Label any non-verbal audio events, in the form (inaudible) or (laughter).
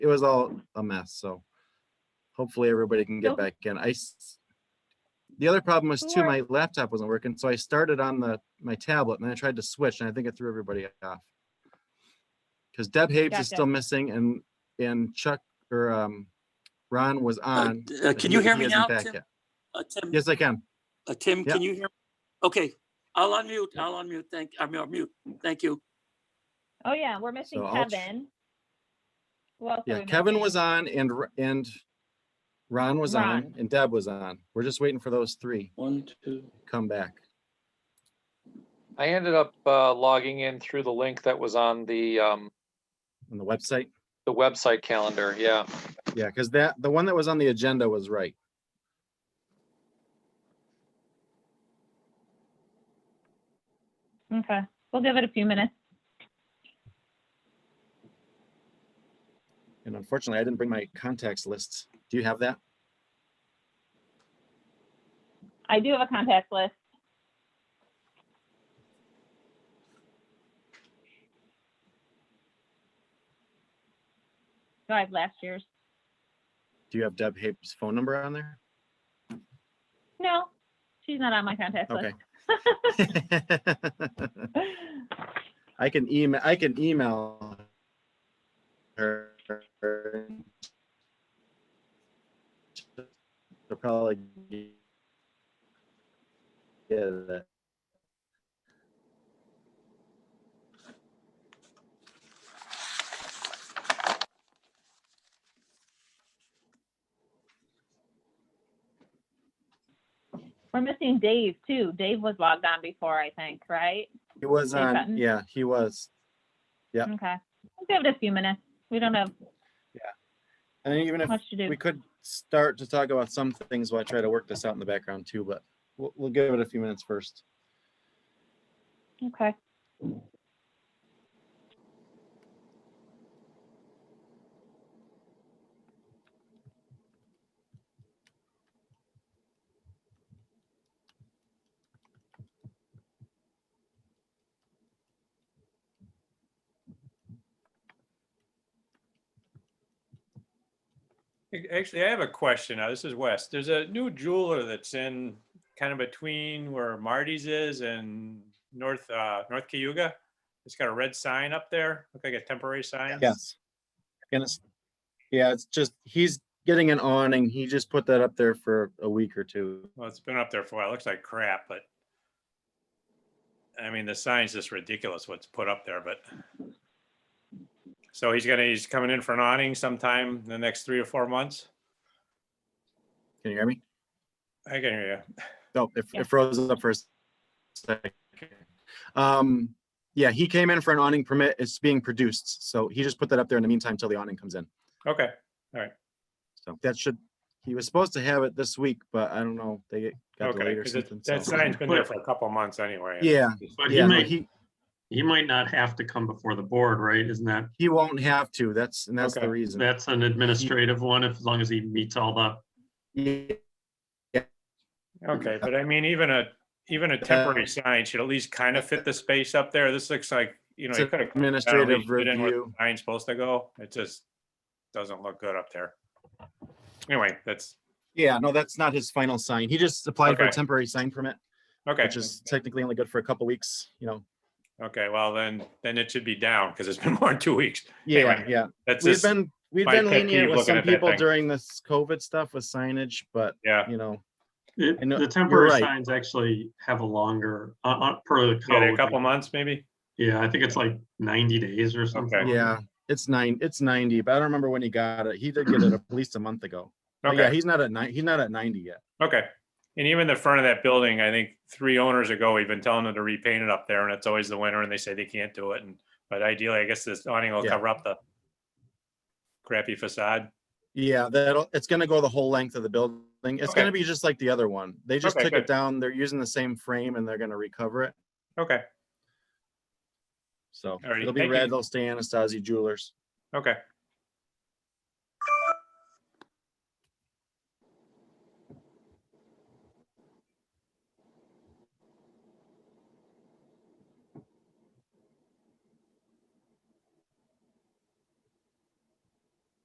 was all a mess, so hopefully everybody can get Nope. back in. I s- the other problem was too, Sure. my laptop wasn't working, so I started on the, my tablet and then I tried to switch and I think it threw everybody off. Cause Deb Habs Gotcha. is still missing and, and Chuck or, um, Ron was Uh, on. uh, but Can he- you hear he me isn't now? back Tim? yet. Uh, Tim, Yes, I can. uh, Tim, yeah. can you hear? Okay, I'll unmute, I'll unmute, thank, I'm mute, thank you. Oh, yeah, we're missing So I'll ch- Kevin. Who else are Yeah, we Kevin was missing? on and, R- and Ron was on Ron. and Deb was on. We're just waiting for those three One, two. to come back. I ended up uh, logging in through the link that was on the, um, on the website? the website calendar, yeah. Yeah, because that, the one that was on the agenda was right. Okay, we'll give it a few minutes. And unfortunately, I didn't bring my contacts list. Do you have that? I do have a contact list. So I have last year's. Do you have Deb Habe's phone number on there? No, she's not on my contact Okay. (laughs) (laughs) list. I can email, I can email her. She'll probably get it. We're missing Dave too. Dave was logged on before, I think, right? He was Hey, on, Cotton. yeah, he was. Yep. Okay, we'll give it a few minutes. We don't have And even if much to do. we could start to talk about some things while I try to work this out in the background too, but we'll, we'll give it a few minutes first. Okay. Ac- Actually, I have a question. Now, this is Wes. There's a new jeweler that's in kind of between where Marty's is and North, uh, North Cayuga. It's got a red sign up there, look like a temporary sign. Yes. And it's, yeah, it's just, he's getting an awning. He just put that up there for a week or two. Well, it's been up there for a while. It looks like crap, but I mean, the sign's just ridiculous what's put up there, but so he's gonna, he's coming in for an awning sometime in the next three or four months. Can you hear me? I can hear you. No, it Yeah. it froze up for a second. Um, yeah, he came in for an awning permit. It's being produced. So he just put that up there in the meantime till the awning comes in. Okay, So that should, he was supposed to have it this week, but I don't know. They got okay. delayed or 'cause it- something. That so- sign's been there for a couple months anyway. Yeah, But he yeah, no, might, he, he might not have to come before the board, right? Isn't that, he won't have to. That's, and that's the Okay. reason. that's an administrative one, if- as long as he meets all the, Yeah, Okay, but I mean, even a, even a temporary sign should at least kind of fit the space up there. This looks like, you know, It's you could have. administrative review. Sign's supposed to go. It just doesn't look good up there. Anyway, that's, Yeah, no, that's not his final sign. He just applied for a Okay. temporary sign permit, okay, which is technically only good for a couple weeks, you know. okay, well, then, then it should be down because it's been (laughs) more than two weeks. Yeah, Anyway, yeah. That's We've just, been, we've my been pet peeve lenient with looking some at that people thing. during this COVID stuff with signage, but yeah, you know, it- I know- the temporary right. signs actually have a longer, uh, uh, per the Oh, yeah, a code. couple like- months maybe. Yeah, I think it's like ninety days or something. yeah, it's nine, it's ninety, but I don't remember when he got it. He did get it at least a month ago. But Oh, yeah, Okay, he's not at nine, he's not at ninety yet. okay. And even the front of that building, I think three owners ago, we've been telling them to repaint it up there and it's always the winter and they say they can't do it. And, but ideally, I guess this awning will Yeah. cover up the crappy facade. Yeah, that'll, it's gonna go the whole length of the building. It's Okay. gonna be just like the other one. They just Okay, took it good. down. They're using the same frame and they're gonna recover it. Okay. So Alrighty, it'll be thank you. red. They'll stay Anastasi Jewelers. Okay,